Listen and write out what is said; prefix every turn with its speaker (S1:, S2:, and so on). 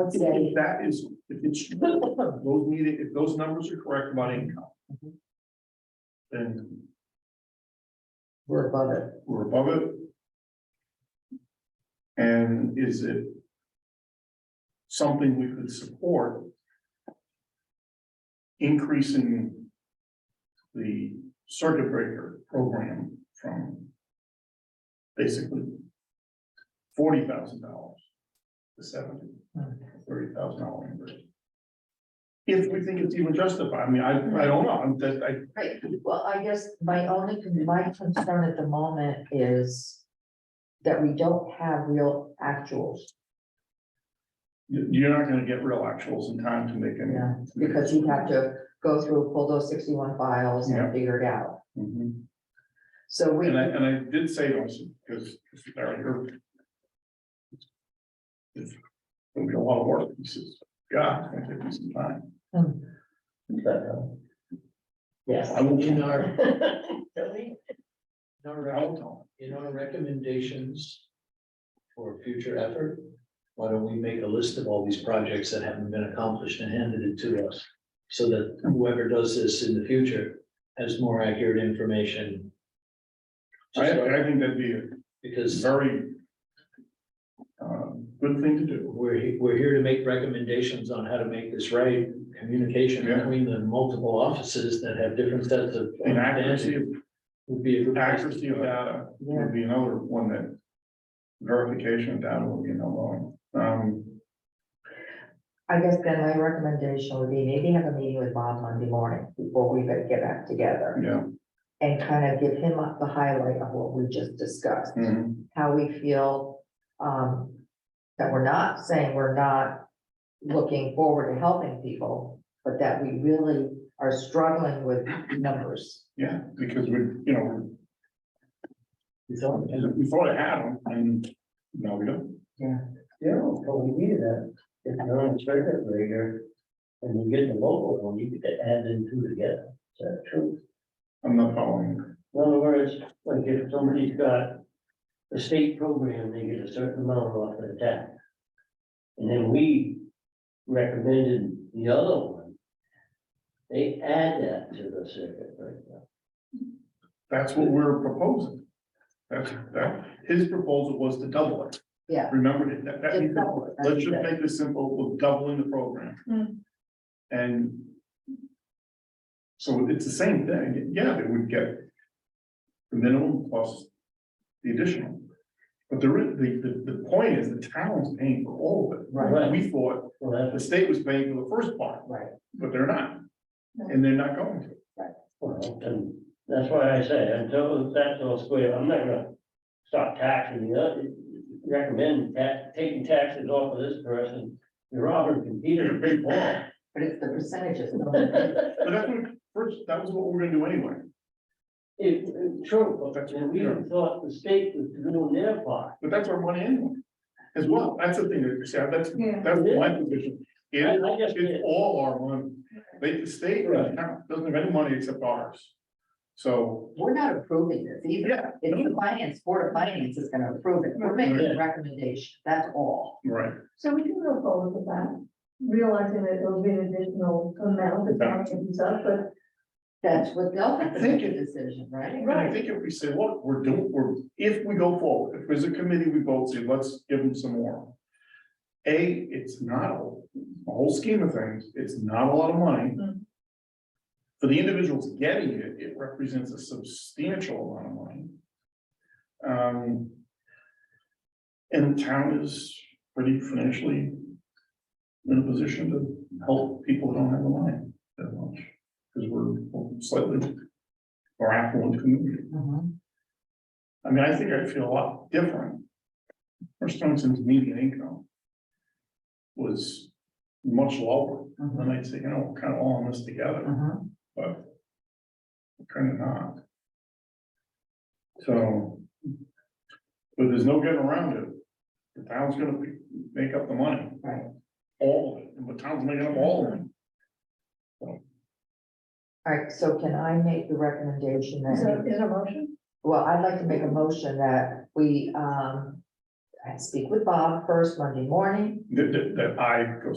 S1: I'd
S2: If- If
S1: say,
S2: that is, if it's, those meeting, if those numbers are correct about income.
S1: Mm-hmm.
S2: Then
S1: we're above it.
S2: we're above it. And is it? Something we could support? Increasing. The circuit breaker program from. Basically. Forty thousand dollars. To seventy, thirty thousand dollar increase. If we think it's even justified, I mean, I, I don't know, I'm just, I,
S1: Right, well, I guess my only, con- my concern at the moment is that we don't have real actuals,
S2: you- you're not gonna get real actuals in time to make any.
S1: yeah, because you have to go through, pull those sixty-one files
S2: Yeah.
S1: and figure it out.
S2: Mhm.
S1: So we,
S2: And I, and I did say to us, because Larry heard. It's gonna be a lot of work, he says, God, it's gonna take me some time.
S1: Hmm.
S2: But, uh,
S3: Yes,
S2: I will-
S3: in our, in our,
S2: I will
S3: rec-
S2: tell
S3: in our recommendations for future effort, why don't we make a list of all these projects that haven't been accomplished and handed it to us? So that whoever does this in the future has more accurate information.
S2: him. I, I think that'd be a
S3: Because
S2: very. Uh, good thing to do.
S3: we're, he- we're here to make recommendations on how to make this right, communication
S2: Yeah.
S3: between the multiple offices that have different sets of.
S2: And accuracy, of-
S3: Would be a good. place to
S2: accuracy of
S3: start.
S2: data
S1: yeah,
S2: would be another one that. Verification of data would be another one. Um,
S1: I guess then my recommendation would be maybe have a meeting with Bob Monday morning before we get back together.
S2: yeah.
S1: And kind of give him up the highlight of what we just discussed.
S2: mhm.
S1: how we feel, um, that we're not saying we're not looking forward to helping people, but that we really are struggling with numbers.
S2: Yeah, because we, you know,
S3: You thought-
S2: we- we thought it had them and now we don't.
S4: Yeah, but we needed that, if you're on a circuit breaker, and you get the local one, you could add in two together, is that true?
S2: I'm not following.
S4: In other words, like if somebody's got a state program, they get a certain amount off of the tax. And then we recommended the other one. They add that to the circuit breaker.
S2: That's what we're proposing. That's, that, his proposal was to double it.
S1: Yeah.
S2: Remember, that, that,
S1: Just double it.
S2: let's just make this simple, we're doubling the program. And so it's the same thing, yeah, they would get the minimum plus the additional. But the, re- the, the, the point is the town's paying for all of it.
S4: Right.
S2: We thought
S4: Well, that's
S2: the state was paying for the first part,
S1: Right.
S2: but they're not, and they're not going to.
S4: Well, and that's why I say, until that's all square, I'm not gonna stop taxing the other, recommend that, taking taxes off of this person. You're robbing from Peter to pay Paul.
S1: But it's the percentages.
S2: But that's what, first, that was what we we're gonna do anyway.
S4: It, it's true, but we thought the state was doing their part.
S2: But that's our money anyway, as well, that's the thing, that you see, that's,
S5: Yeah.
S2: that's my position,
S4: I,
S2: it,
S4: I just,
S2: it's all our money. They, the state doesn't have doesn't have any money except ours. So,
S1: We're not approving this either.
S2: yeah,
S1: If the finance, board of finance is gonna approve it, we're making a recommendation, that's all.
S2: right,
S5: So we can go forward with that, realizing that it'll be an additional amount of time and stuff, but
S1: That's what they'll have to make a
S2: Thank you.
S1: decision, right?
S2: and I think if we say, look, we're doing, we're, if we go forward, if there's a committee, we both say, let's give them some more. A, it's not, a the whole scheme of things, it's not a lot of money.
S5: Mm.
S2: For the individuals getting it, it represents a substantial amount of money. Um. And the town is pretty financially in a position to help people who don't have the money that much, because we're slightly more affluent community.
S1: Mhm.
S2: I mean, I think I feel a lot different. First Thompson's median income. Was much lower,
S1: Mhm.
S2: and I'd say, you know, kind of all in this together,
S1: Mhm.
S2: but. Kind of not. So. But there's no getting around it. The town's gonna be- make up the money.
S1: Right.
S2: All of it, and the town's making up all of it.
S1: All right, so can I make the recommendation that?
S5: is there, is there a motion?
S1: Well, I'd like to make a motion that we, um, I speak with Bob first Monday morning,
S2: that, that, that I go